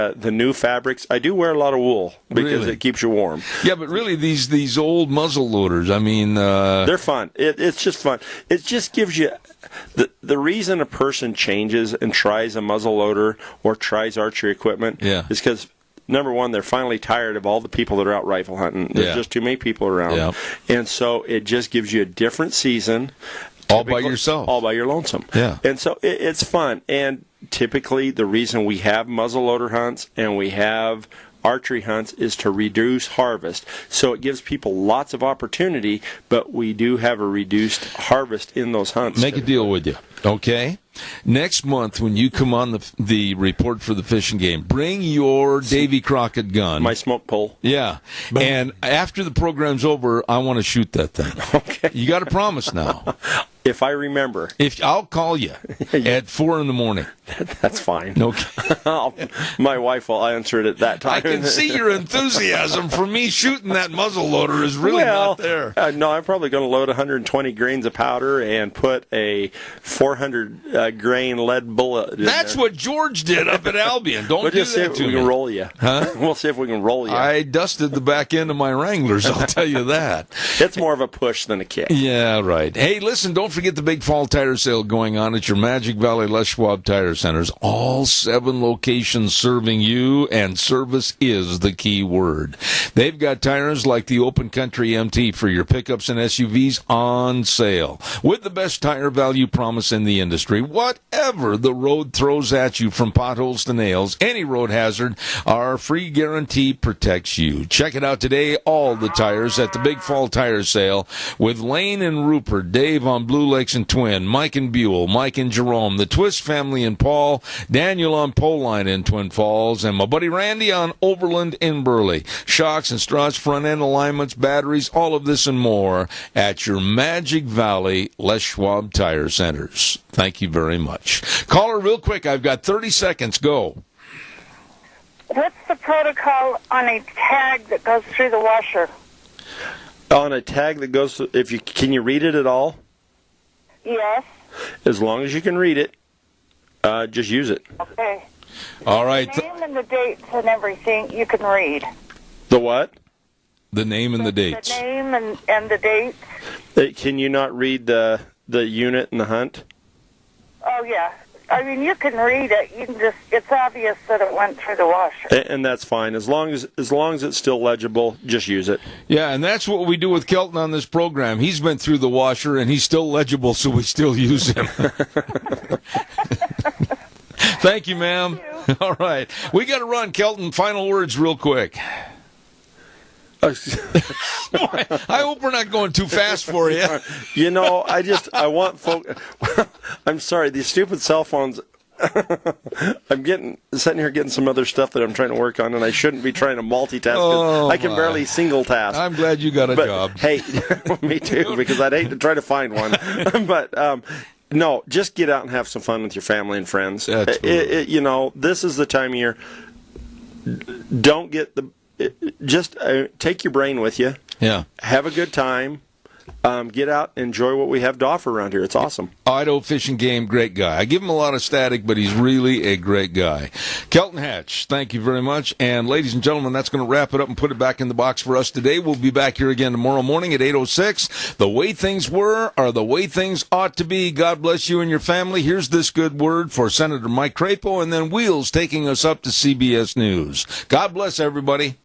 Uh, the new fabrics. I do wear a lot of wool because Really? it keeps you warm. Yeah, but really, these these old muzzle loaders. I mean, uh, They're fun. It, it's just fun. It just gives you the the reason a person changes and tries a muzzle loader or tries archery equipment Yeah. is because number one, they're finally tired of all the people that are out rifle hunting. There's Yeah. just too many people around, Yeah. and so it just gives you a different season. All by Typically- yourself. All by your lonesome. Yeah. And so it, it's fun. And typically, the reason we have muzzleloader hunts and we have archery hunts is to reduce harvest. So it gives people lots of opportunity, but we do have a reduced harvest in those hunts. make a deal with you, okay? Next month, when you come on the the report for the fishing game, bring your Davy Crockett gun. My smoke pole. yeah, and after the program's over, I want to shoot that thing. Okay. You got to promise now. If I remember, If I'll call you at four in the morning. that's fine. Okay. I'll- my wife will answer it at that time. I can see your enthusiasm for me shooting that muzzle loader is really well, not there. Uh, no, I'm probably going to load 120 grains of powder and put a 400 uh, grain lead bullet. In That's there. what George did up at Albion. Don't We'll do just see that if to we me. can roll you. Huh? We'll see if we can roll you. I dusted the back end of my Wranglers, I'll tell you that. It's more of a push than a kick. Yeah, right. Hey, listen, don't forget the big fall tire sale going on at your Magic Valley Les Schwab Tire Centers. All seven locations serving you, and service is the key word. They've got tires like the Open Country MT for your pickups and SUVs on sale with the best tire value promise in the industry. Whatever the road throws at you from potholes to nails, any road hazard, our free guarantee protects you. Check it out today, all the tires at the Big Fall Tire Sale with Lane and Rupert, Dave on Blue Lakes and Twin, Mike and Buell, Mike and Jerome, the Twist family and Paul, Daniel on Poline in Twin Falls, and my buddy Randy on Overland in Burley. Shocks and struts, front end alignments, batteries, all of this and more at your Magic Valley Les Schwab Tire Centers. Thank you very much. Caller, real quick, I've got 30 seconds. Go. What's the protocol on a tag that goes through the washer? On a tag that goes, to- if you can you read it at all? Yes. As long as you can read it, uh, just use it. Okay. All right. th- Name and the dates and everything you can read. The what? The name and the dates. The name and, and the dates. Uh, Can you not read the the unit and the hunt? Oh yeah. I mean, you can read it. You can just—it's obvious that it went through the washer. A- And that's fine. As long as as long as it's still legible, just use it. Yeah, and that's what we do with Kelton on this program. He's been through the washer and he's still legible, so we still use him. Thank you, ma'am. All right. We got to run. Kelton, final words, real quick. Uh, Boy, I hope we're not going too fast for you. You know, I just I want folk. I'm sorry, these stupid cell phones. I'm getting sitting here getting some other stuff that I'm trying to work on, and I shouldn't be trying to multitask. 'cause Oh, I can my. barely single task. I'm glad you got a but job. hey, me too, because I'd hate to try to find one. but um, no, just get out and have some fun with your family and friends. That's It- it- it- you know, this is the time of year. Don't get the. it- Just uh, take your brain with you Yeah. have a good time. Um, get out, enjoy what we have to offer around here. It's awesome. Idaho fishing game, great guy. I give him a lot of static, but he's really a great guy. Kelton Hatch, thank you very much. And ladies and gentlemen, that's going to wrap it up and put it back in the box for us today. We'll be back here again tomorrow morning at 8.06. The way things were are the way things ought to be. God bless you and your family. Here's this good word for Senator Mike Crapo and then Wheels taking us up to CBS News. God bless everybody.